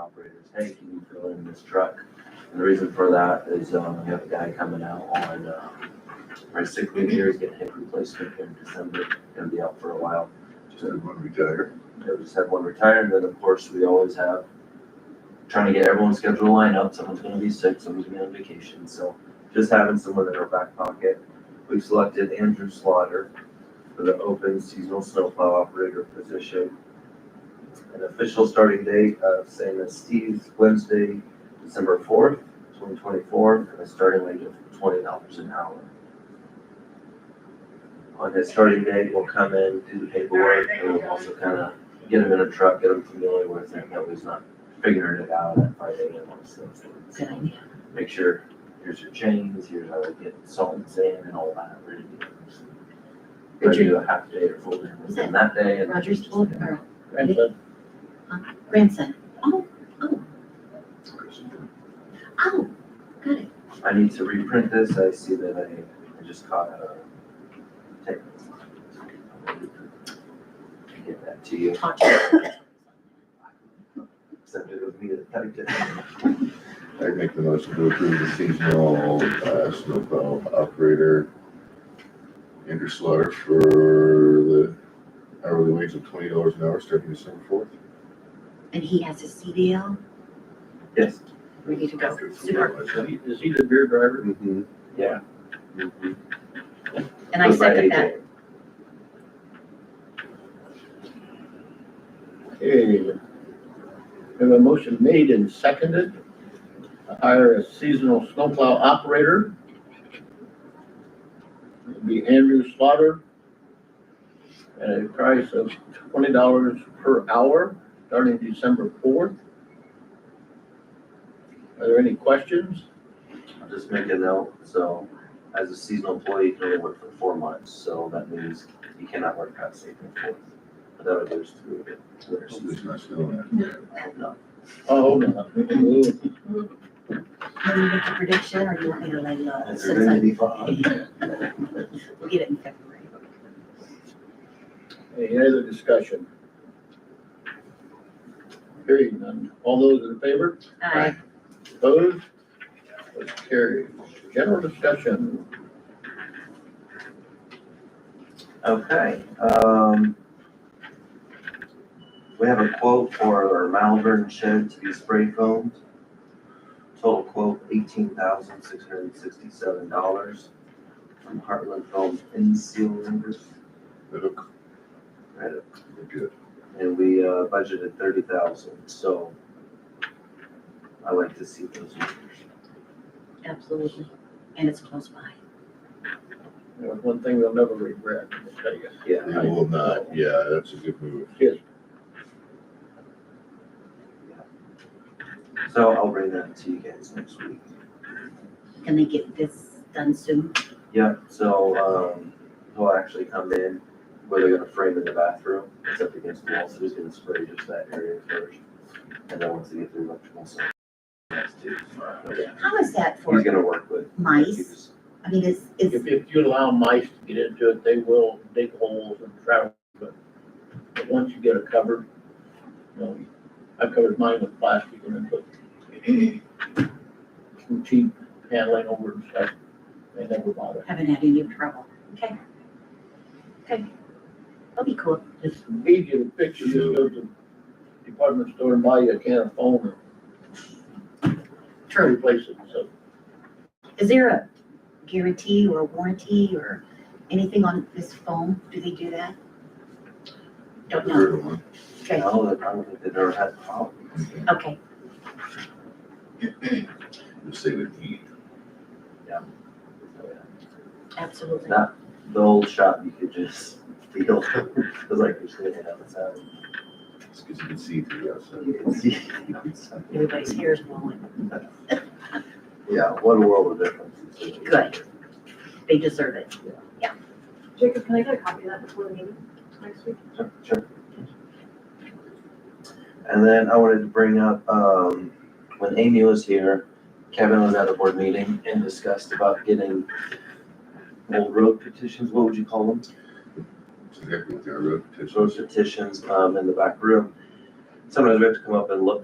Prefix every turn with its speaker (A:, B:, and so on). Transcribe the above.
A: operators, hey, can you fill in this truck? And the reason for that is, um, we have a guy coming out on, uh, our sick leave here, he's getting hip replacement in December, gonna be out for a while.
B: Just had one retire.
A: We just had one retire, and then of course, we always have, trying to get everyone's schedule lined up, someone's gonna be sick, someone's gonna be on vacation, so just having someone in our back pocket. We've selected Andrew Slaughter for the open seasonal snowplow operator position. An official starting date of same as Steve's, Wednesday, December fourth, twenty twenty-four, and a starting wage of twenty dollars an hour. On his starting date, we'll come in, do the paperwork, and we'll also kind of get him in a truck, get him familiar with it, that way he's not figuring it out at five AM on those things.
C: Good idea.
A: Make sure, here's your chains, here's how to get salt and sand and all that, ready to go. Ready to do a half day or full day within that day and.
C: Roger's old, or
D: Grandson,
C: grandson. Oh, oh, got it.
A: I need to reprint this, I see that I, I just caught a typo. Get that to you,
C: Taught you.
A: except it was me that typed it.
B: I'd make the motion to approve the seasonal, uh, snowplow operator. Andrew Slaughter for the hourly wage of twenty dollars an hour starting December fourth.
C: And he has his CDL
A: Yes,
C: ready to go. Super.
D: is he- is he the beer driver?
B: Mm-hmm.
A: yeah.
C: And I second that.
D: Okay. We have a motion made and seconded to hire a seasonal snowplow operator. It'd Be Andrew Slaughter. At a price of twenty dollars per hour, starting December fourth. Are there any questions?
A: I'll just make a note, so as a seasonal employee, you can only work for four months, so that means you cannot work past April fourth. But that would go through the winter season,
B: It's not snowing.
A: no.
D: Oh, hold on. Ooh,
C: Can you make a prediction or you want me to lay low?
A: It's
C: Since I-
A: really fun.
C: We'll get it in February.
D: Any other discussion? Hearing none. All those in favor?
C: Aye.
D: Opposed? Motion carries. General discussion.
A: Okay, um. We have a quote for our Malvern shed to be spray foamed. Total quote eighteen thousand six hundred and sixty-seven dollars from Heartland Foam in Seal members.
B: Look,
A: Right,
B: we're good.
A: and we uh, budgeted thirty thousand, so I like to see those numbers.
C: Absolutely. And it's close by.
D: You know, one thing they'll never regret, I'll tell you.
A: Yeah,
B: We will not, yeah, that's a good move.
A: so I'll bring that to you guys next week.
C: Can they get this done soon?
A: Yeah, so, um, he'll actually come in, where they're gonna frame in the bathroom, it's up against the wall, so he's gonna spray just that area first. And then once they get the electrical, so. that's two.
C: How is that for
A: He's gonna work with.
C: mice? I mean, is, is,
D: If, if you allow mice to get into it, they will dig holes and travel, but, but once you get it covered, you know, I covered mine with plastic and then put some cheap paneling over and stuff. They never bother.
C: haven't had any trouble? Okay. Okay. That'll be cool.
D: It's easy to fix, you just go to the department store and buy you a can of foam and
C: True.
D: replace it, so.
C: Is there a guarantee or warranty or anything on this foam? Do they do that? Don't know.
B: Third one.
C: Okay,
A: No, I don't think they've ever had problems.
C: okay.
B: Just say with heat.
C: Absolutely.
A: That- The old shop, you could just feel, it was like you're standing outside.
B: It's because you can see through the outside.
A: You can see.
C: Everybody's hair is blowing.
A: Yeah, what a world of difference.
C: Good. They deserve it.
E: Jacob, can I get a copy of that before the meeting next week?
A: Sure, sure. And then I wanted to bring up, um, when Amy was here, Kevin was at a board meeting and discussed about getting old road petitions, what would you call them?
B: It's exactly what they wrote.
A: Road petitions, um, in the back room. Sometimes we have to come up and look